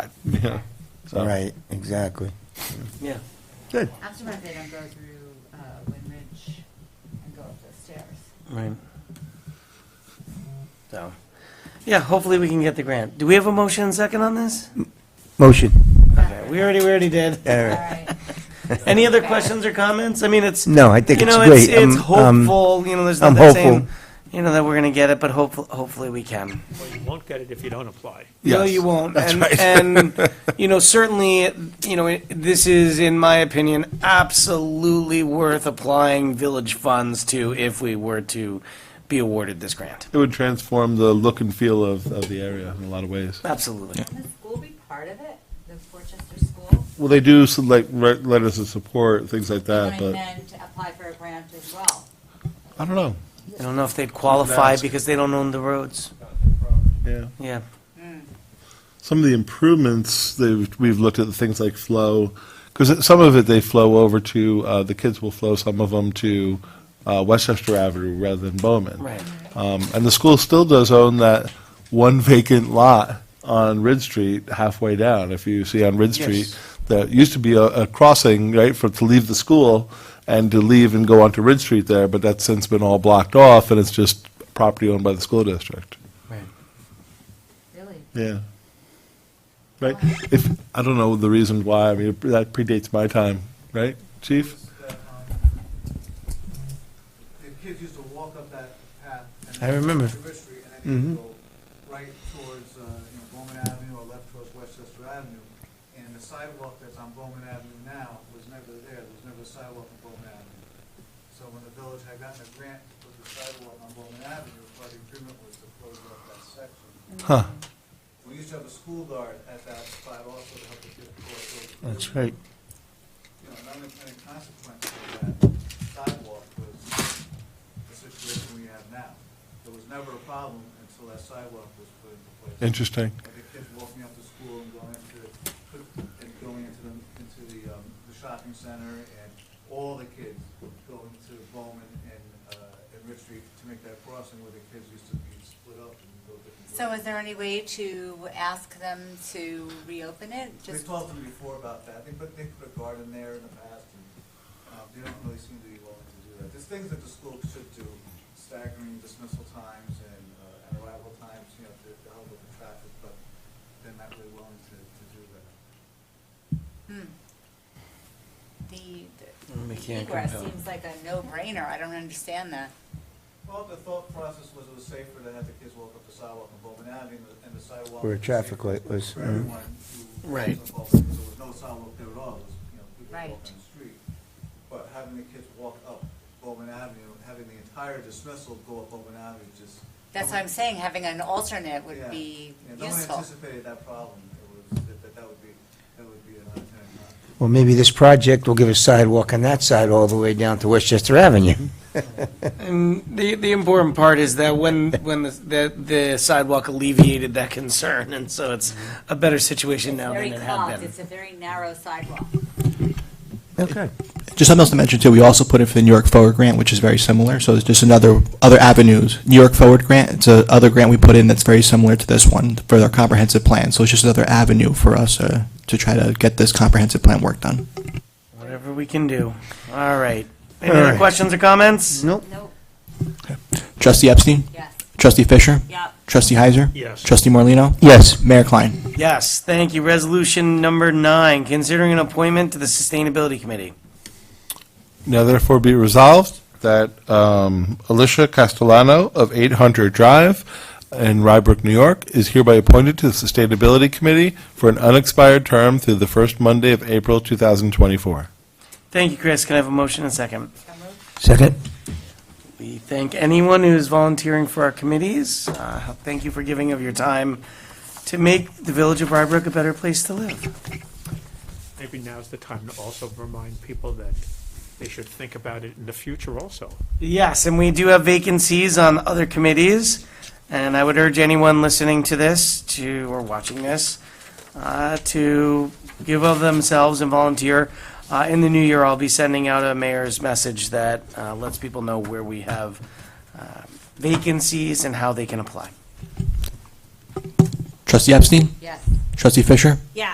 So- Right, exactly. Yeah. Good. After my bid, I'm going through uh, Wind Ridge and go up the stairs. Right. So, yeah, hopefully we can get the grant. Do we have a motion and second on this? Motion. Okay, we already, we already did. All All right. right. Any other questions or comments? I mean, it's, you No, I think it's know, great. it's, it's Um, um, hopeful, you know, there's I'm nothing hopeful. saying, you know, that we're gonna get it, but hopefully, hopefully we can. Well, you won't get it if you don't apply. No, Yes. you won't. And, and, you know, certainly, you know, it- this is, in my opinion, absolutely worth applying village funds to if we were to be awarded this grant. It would transform the look and feel of, of the area in a lot of ways. Absolutely. Can the school be part of it? The Portchester School? Well, they do some, like re- letters of support, things like that, And Uh, but then to apply for a grant as well. I don't know. I don't know if they'd qualify Ask. because they don't own the roads. Yeah. Yeah, Some of the improvements, they've, we've looked at things like flow, because some of it they flow over to, uh, the kids will flow some of them to, uh, Westchester Avenue rather than Bowman. right. Um, and the school still does own that one vacant lot on Ridge Street halfway down. If you see on Ridge Yes. Street, that used to be a, a crossing, right, for, to leave the school and to leave and go onto Ridge Street there, but that's since been all blocked off and it's just property owned by the school district. Right. Really? Yeah. Right? If, I don't know the reason why, I mean, that predates my time, right, chief? that, um, The kids used to walk up that path. and I then remember. Mm-hmm. to Rich Street, And then go right towards, uh, you know, Bowman Avenue or left towards Westchester Avenue. And the sidewalk that's on Bowman Avenue now was never there. There was never a sidewalk on Bowman Avenue. So when the village had gotten a grant to put the sidewalk on Bowman Avenue, part of the agreement was to close off that section. Huh, We used to have a school guard at that spot also to help the kids cross over. That's right. You know, an unintended consequence of that sidewalk was the situation we have now. There was never a problem until that sidewalk was put into place. interesting. And the kids walking up to school and going into, and going into the, into the, um, the shopping center and all the kids going to Bowman and, uh, and Rich Street to make that crossing where the kids used to be split up and go different ways. So is there any way to ask them to reopen it? We Just talked to them before about that, they put, they put a garden there in the past, and, uh, they don't really seem to be willing to do that. There's things that the school should do, staggering dismissal times and, uh, and arrival times, you know, to, to help with the traffic, but they're not really willing to, to do that. hmm. The Mm, We the can't egress compel. seems like a no-brainer. I don't understand that. Well, the thought process was it was safer to have the kids walk up the sidewalk on Bowman Avenue, and the- and the sidewalk. Where a was traffic safer light was, For mm. everyone who. was Right. involved, because there was no sidewalk there at all, it was, you know, people Right. walking the street. But having the kids walk up Bowman Avenue, having the entire dismissal go up Bowman Avenue, just. That's what I'm saying. Having an alternate Oh, would Yeah. be Yeah, No one useful. anticipated that problem, it was, that, that that would be, that would be an unintended consequence. Well, maybe this project will give a sidewalk on that side all the way down to Westchester Avenue. And the, the important part is that when, when the, the- the sidewalk alleviated that concern, and so it's a better situation now Very than it had clogged. been. It's a very narrow sidewalk. Okay. Just something else to mention too, we also put in for the New York Forward Grant, which is very similar, so it's just another, other avenues. New York Forward Grant, it's a other grant we put in that's very similar to this one for their comprehensive plan, so it's just another avenue for us uh, to try to get this comprehensive plan work done. Whatever we can do. All right. Any other questions or comments? Nope. Nope. Trustee Epstein? Yes. Trustee Fisher? Yep. Trustee Heiser? Yes. Trustee Morlino, Yes. Mayor Klein? Yes, thank you. Resolution number nine, considering an appointment to the Sustainability Committee. Now therefore be resolved that um, Alicia Castellano of 800 Drive in Rybrook, New York, is hereby appointed to the Sustainability Committee for an unexpired term through the first Monday of April 2024. Thank you, Chris. Can I have a motion and a second? So moved. Second? We thank anyone who's volunteering for our committees. Uh, Thank you for giving of your time to make the village of Rybrook a better place to live. Maybe now's the time to also remind people that they should think about it in the future also. Yes, and we do have vacancies on other committees, and I would urge anyone listening to this, to, or watching this, uh, to give of themselves and volunteer. Uh, In the new year, I'll be sending out a mayor's message that uh, lets people know where we have uh, vacancies and how they can apply. Trustee Epstein? Yes. Trustee Fisher?